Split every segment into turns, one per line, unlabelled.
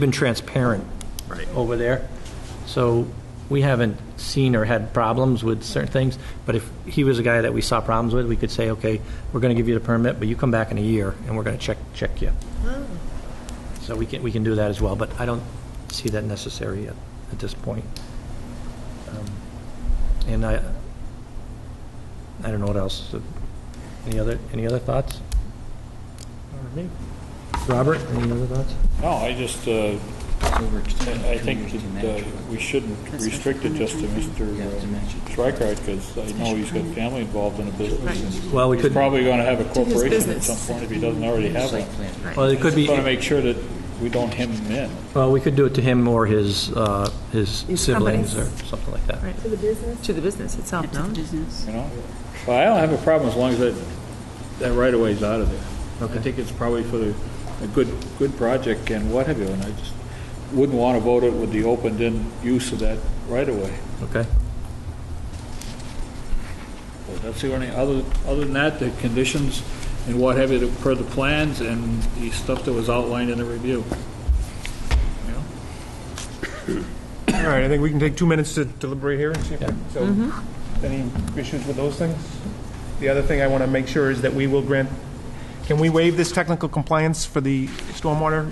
been transparent
Right.
over there. So we haven't seen or had problems with certain things, but if he was a guy that we saw problems with, we could say, okay, we're going to give you the permit, but you come back in a year and we're going to check, check you. So we can, we can do that as well, but I don't see that necessary at, at this point. Um, And I, I don't know what else. Any other, any other thoughts? Robert, any other thoughts?
No, I just, uh, I I think that uh, we shouldn't restrict it just to Mr. Schreikart, because I know he's got family involved in a business. and
Well, we
He's
could, well,
probably going to have a corporation at
business.
some point if he doesn't already have one.
it could be.
Want to make sure that we don't hem him in.
Well, we could do it to him or his, uh, his
His
siblings or
companies.
something like that.
Right. To the business? To the business itself, no?
business.
You know? Well, I don't have a problem as long as that, that right of way's out of there.
Okay.
I think it's probably for the- a good, good project and what have you, and I just wouldn't want to vote it with the opened-in use of that right of way.
Okay.
So That's the only, other, other than that, the conditions and what have you, that- per the plans and the stuff that was outlined in the review. You know?
All right, I think we can take two minutes to deliberate here and see if, so,
Mm-hmm.
any issues with those things? The other thing I want to make sure is that we will grant, can we waive this technical compliance for the stormwater?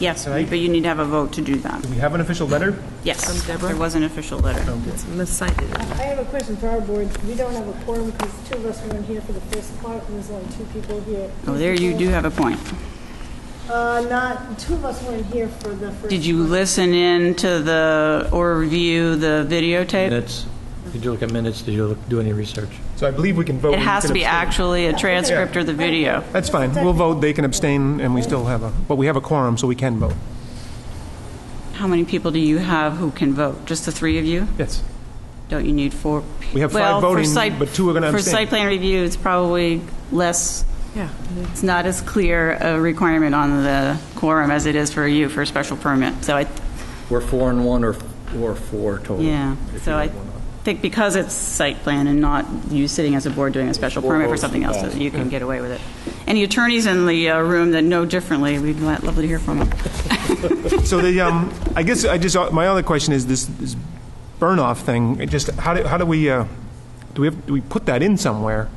Yes,
Right.
but you need to have a vote to do that.
Do we have an official letter?
Yes,
From Deborah?
there was an official letter.
It's missigned.
I have a question for our board. We don't have a quorum because two of us weren't here for the first part, and there's only two people here.
Oh, there you do have a point.
Uh, not, two of us weren't here for the first.
Did you listen in to the, or review the videotape?
Minutes, did you look at minutes? Did you look- do any research?
So I believe we can vote.
It
we
has
can
to be
abstain.
actually a transcript or the video.
That's fine, we'll vote, they can abstain, and we still have a, but we have a quorum, so we can vote.
How many people do you have who can vote? Just the three of you?
Yes.
Don't you need four? pe-
We have five
Well, for
voting,
site-
but two are gonna
For
abstain.
site plan review, it's probably less,
Yeah.
it's not as clear a requirement on the quorum as it is for you for a special permit. So I,
We're four and one or, or four total.
yeah,
if
so
you
I
have one on.
think because it's site plan and not you sitting as a board doing a special
Four
permit for
votes
something
in
else,
that.
you can get away with it. Any attorneys in the uh, room that know differently, we'd li- love to hear from them.
So the, um, I guess I just, my other question is this, this burn-off thing, it just, how do, how do we, uh, do we have, do we put that in somewhere?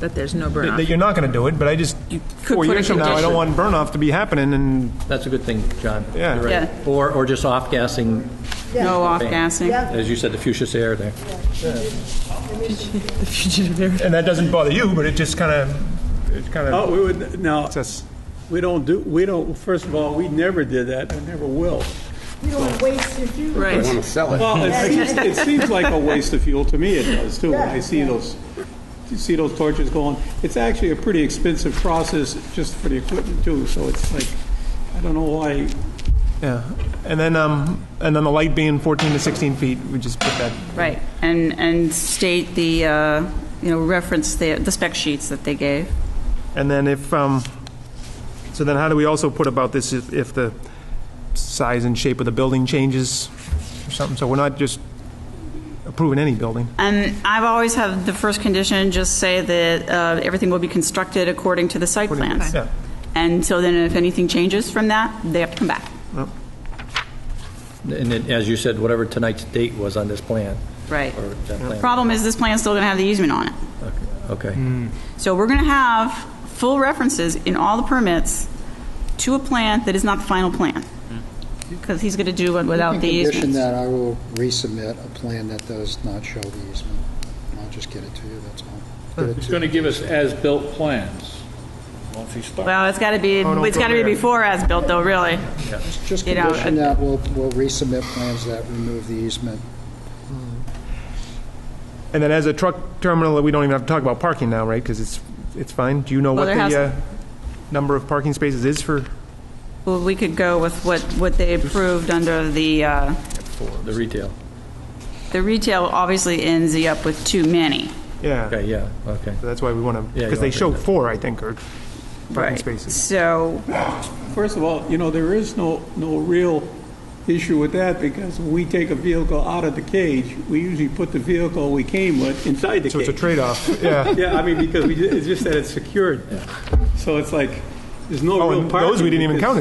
That there's no
That that
burnout.
you're not gonna do it, but I just,
could
four
put a
years from now, I don't
condition.
want burn-off to be happening, and
That's a good thing, John.
Yeah.
You're right.
Yeah.
Or, or just off-gassing,
No off-gassing?
Yeah.
as you said, the fuchsia air there.
The fugitive air.
And that doesn't bother you, but it just kind of, it kind
Oh,
of,
we would, no,
it's us.
we don't do, we don't, first of all, we never did that, and never will.
You don't waste your fuel.
Right.
Well, it- it seems like a waste of fuel, to me it does, too, when I see those, you see those torches going. It's actually a pretty expensive process just for the equipment, too, so it's like, I don't know why,
yeah. And then, um, and then the light being 14 to 16 feet, we just put that,
Right, and, and state the, uh, you know, reference the, the spec sheets that they gave.
and then if, um, so then how do we also put about this if, if the size and shape of the building changes or something? So we're not just approving any building.
And I've always had the first condition, just say that uh, everything will be constructed according to the site plans.
Yeah.
And so then if anything changes from that, they have to come back,
And then, as you said, whatever tonight's date was on this plan,
right?
or that plan.
Problem is, this plan's still going to have the easement on it.
Okay.
So we're going to have full references in all the permits to a plan that is not the final plan,
Mm-hmm.
because he's going to do it without the
You can condition
easement.
that I will resubmit a plan that does not show the easement. And I'll just get it to you, that's all. Get it
He's
to
going to give us as-built plans once he starts.
Well, it's got to be,
no,
it's got to be
Oh, go there.
before as-built, though, really.
you. Just
you know,
condition
uh,
that we'll, we'll resubmit plans that remove the easement.
And then as a truck terminal, we don't even have to talk about parking now, right? Because it's, it's fine. Do you know
Well,
what
there has-
the uh, number of parking spaces is for?
Well, we could go with what, what they approved under the, uh,
The retail.
the retail obviously ends up with too many.
Yeah,
Okay, yeah, okay.
that's why we want to,
Yeah, you
because they
wanna
show
bring that.
four, I think, or parking spaces.
So,
first of all, you know, there is no, no real issue with that, because when we take a vehicle out of the cage, we usually put the vehicle we came with inside the cage.
So it's a trade-off, yeah.
Yeah, I mean, because we, ju- it's just that it's secured. So it's like, there's no
Oh,
real
and
parking.
those we didn't even
because-
count as